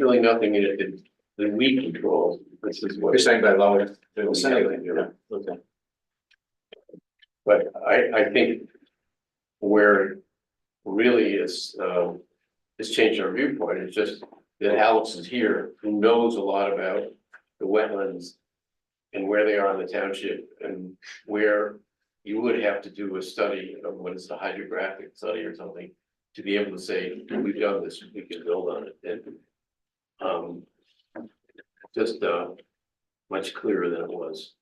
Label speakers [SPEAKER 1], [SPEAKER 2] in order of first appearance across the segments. [SPEAKER 1] really nothing in it that, that we control. This is what.
[SPEAKER 2] You're saying by law, it's.
[SPEAKER 1] Assembly, yeah.
[SPEAKER 2] Okay.
[SPEAKER 1] But I, I think where it really is, um, has changed our viewpoint, it's just that Alex is here, who knows a lot about the wetlands and where they are in the township and where you would have to do a study of what is the hydrographic study or something to be able to say, we've done this, we can build on it, and um, just, uh, much clearer than it was.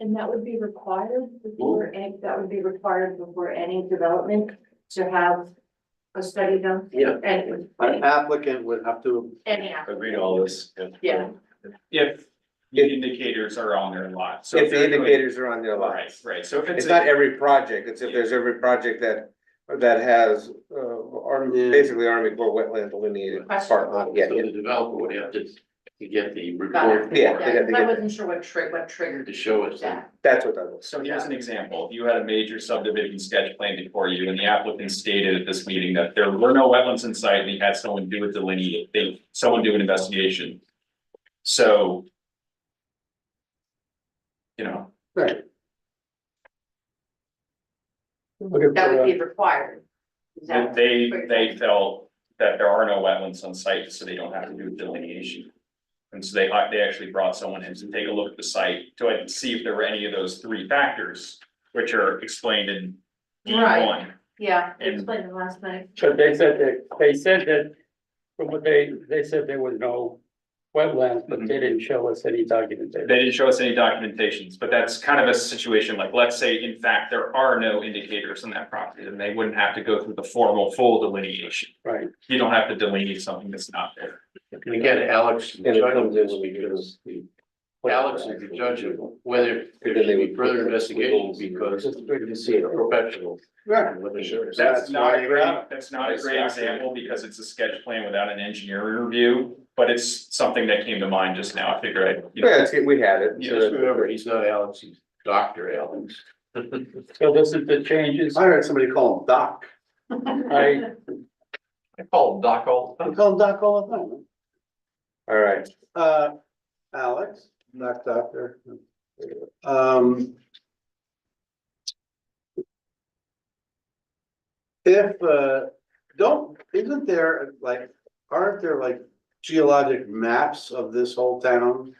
[SPEAKER 3] And that would be required before, any- that would be required before any development to have a study done
[SPEAKER 1] Yeah.
[SPEAKER 3] and
[SPEAKER 4] An applicant would have to,
[SPEAKER 3] any,
[SPEAKER 2] Agree to all this.
[SPEAKER 3] yeah.
[SPEAKER 5] If the indicators are on their lot, so.
[SPEAKER 6] If the
[SPEAKER 5] they're doing-
[SPEAKER 6] indicators are on their
[SPEAKER 5] Right,
[SPEAKER 6] lots.
[SPEAKER 5] right, so if it's.
[SPEAKER 6] It's
[SPEAKER 5] a-
[SPEAKER 6] not every project, it's if there's every project that, that has, uh, Army,
[SPEAKER 4] Yeah.
[SPEAKER 6] basically Army Corps wetland delineated part on, it. Uh, yeah,
[SPEAKER 1] So
[SPEAKER 6] yeah.
[SPEAKER 1] the developer would have to, to get the
[SPEAKER 3] Got
[SPEAKER 1] report
[SPEAKER 3] it.
[SPEAKER 6] Yeah, they got- they
[SPEAKER 3] I
[SPEAKER 6] got-
[SPEAKER 3] wasn't sure what tri- what triggered
[SPEAKER 1] to show us that.
[SPEAKER 3] that.
[SPEAKER 6] that's what that was.
[SPEAKER 5] So here's an example, If you had a major subdivision sketch plan before you, and the applicant stated at this meeting that there were no wetlands in sight, and he had someone do a delineate, they, someone do an investigation. So. You know,
[SPEAKER 3] That
[SPEAKER 7] uh,
[SPEAKER 3] would be required. Is that-
[SPEAKER 5] they, they felt that there are no wetlands on site, so they don't have to do delineation. And so they, they actually brought someone in to take a look at the site, to see if there were any of those three factors, which are explained in E
[SPEAKER 3] Right.
[SPEAKER 5] one.
[SPEAKER 3] Yeah, I
[SPEAKER 5] And-
[SPEAKER 3] explained it last night.
[SPEAKER 7] But they said that, they said that, from what they, they said there was no wetlands, but they didn't show us any documentation.
[SPEAKER 5] They didn't show us any documentations, but that's kind of a situation like, let's say in fact, there are no indicators on that property, then they wouldn't have to go through the formal full delineation.
[SPEAKER 7] Right.
[SPEAKER 5] You don't have to delineate something that's not there.
[SPEAKER 1] And again, Alex, the
[SPEAKER 6] And it
[SPEAKER 1] judge of
[SPEAKER 6] comes
[SPEAKER 1] this
[SPEAKER 6] in when you
[SPEAKER 1] because the, Alex is the judge of whether there
[SPEAKER 6] Then they
[SPEAKER 1] should be
[SPEAKER 6] would-
[SPEAKER 1] further investigation because he's a professional.
[SPEAKER 4] yeah,
[SPEAKER 1] and looking at it.
[SPEAKER 5] That's
[SPEAKER 4] That's
[SPEAKER 5] not
[SPEAKER 4] why
[SPEAKER 5] a
[SPEAKER 4] you
[SPEAKER 5] great,
[SPEAKER 4] have-
[SPEAKER 5] that's not a great example because it's a sketch plan without an engineering review, but it's something that came to mind just now. I figured I, you know,
[SPEAKER 6] Yeah, it's, we had it.
[SPEAKER 1] Just remember, he's not Alex, he's Dr. Alex.
[SPEAKER 7] So this is the changes.
[SPEAKER 4] I heard somebody call him Doc,
[SPEAKER 7] I-
[SPEAKER 1] I call him Doc all the
[SPEAKER 4] I
[SPEAKER 1] time.
[SPEAKER 4] call him Doc all the time.
[SPEAKER 6] All right,
[SPEAKER 4] Uh, Alex, not Doctor. Um. If, uh, don't, isn't there, like, aren't there like geologic maps of this whole town?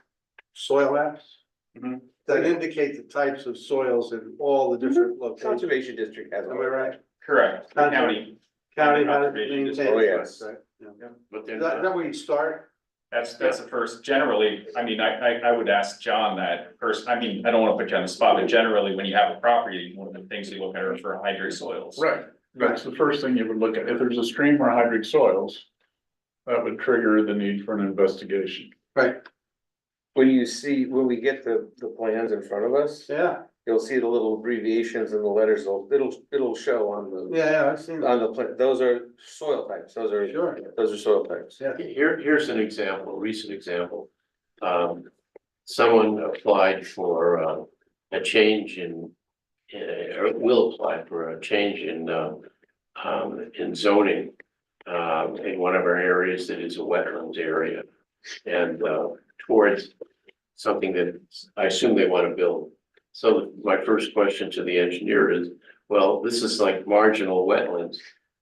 [SPEAKER 4] Soil maps? Mm-hmm.
[SPEAKER 5] Mhm.
[SPEAKER 4] That indicate the types of soils in all the different locations,
[SPEAKER 6] conservation district has.
[SPEAKER 4] am I right?
[SPEAKER 5] correct, the county,
[SPEAKER 4] County how to
[SPEAKER 5] Conservation
[SPEAKER 4] maintain.
[SPEAKER 5] district.
[SPEAKER 6] Oh,
[SPEAKER 4] it,
[SPEAKER 6] yes.
[SPEAKER 4] right, yeah.
[SPEAKER 1] But they're
[SPEAKER 4] Is that, is
[SPEAKER 1] not,
[SPEAKER 4] that where you start?
[SPEAKER 5] that's, that's the first, generally, I mean, I, I, I would ask John that first, I mean, I don't wanna put you on the spot, but generally, when you have a property, one of the things you look at are for hydro soils.
[SPEAKER 8] Right, that's the first thing you would look at. If there's a stream or hydric soils, that would trigger the need for an investigation.
[SPEAKER 4] Right.
[SPEAKER 6] When you see, when we get the, the plans in front of us,
[SPEAKER 4] Yeah,
[SPEAKER 6] you'll see the little abbreviations and the letters, it'll, it'll- it'll show on the,
[SPEAKER 4] yeah, yeah, I've seen that,
[SPEAKER 6] on the, plan. those are soil types, those are,
[SPEAKER 4] sure,
[SPEAKER 6] those are soil types.
[SPEAKER 4] yeah.
[SPEAKER 1] here, here's an example, a recent example. Um, someone applied for, uh, a change in, uh, or will apply for a change in, uh, um, in zoning, um, in one of our areas that is a wetlands area. And, uh, towards something that I assume they want to build. So my first question to the engineer is, well, this is like marginal wetlands.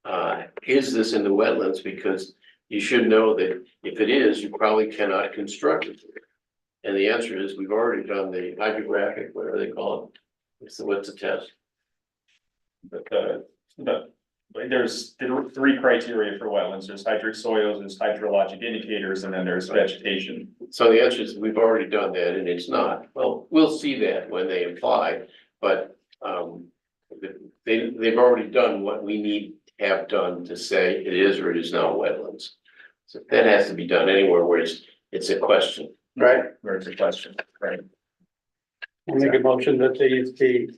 [SPEAKER 1] Uh, is this in the wetlands? Because you should know that if it is, you probably cannot construct it. And the answer is, we've already done the hydrographic, whatever they call it. What's the, what's the test?
[SPEAKER 5] But the, the, like, there's th- three criteria for wetlands, there's hydric soils, there's hydrologic indicators, and then there's vegetation.
[SPEAKER 1] So the answer is, we've already done that and it's not. Well, we'll see that when they apply, but um. They, they've already done what we need to have done to say it is or it is not wetlands. So that has to be done anywhere where it's, it's a question.
[SPEAKER 4] Right.
[SPEAKER 5] Where it's a question, right?
[SPEAKER 7] I make a motion that they use the.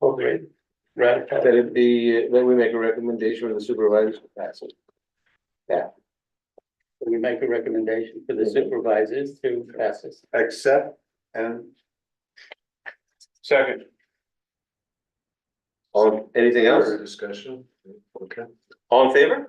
[SPEAKER 7] Okay, right,
[SPEAKER 6] That it be, that we make a recommendation with the supervisors. That's it.
[SPEAKER 7] we make a recommendation for the supervisors to pass this.
[SPEAKER 4] accept and
[SPEAKER 6] All, anything else?
[SPEAKER 2] Further discussion? Okay.
[SPEAKER 6] All in favor?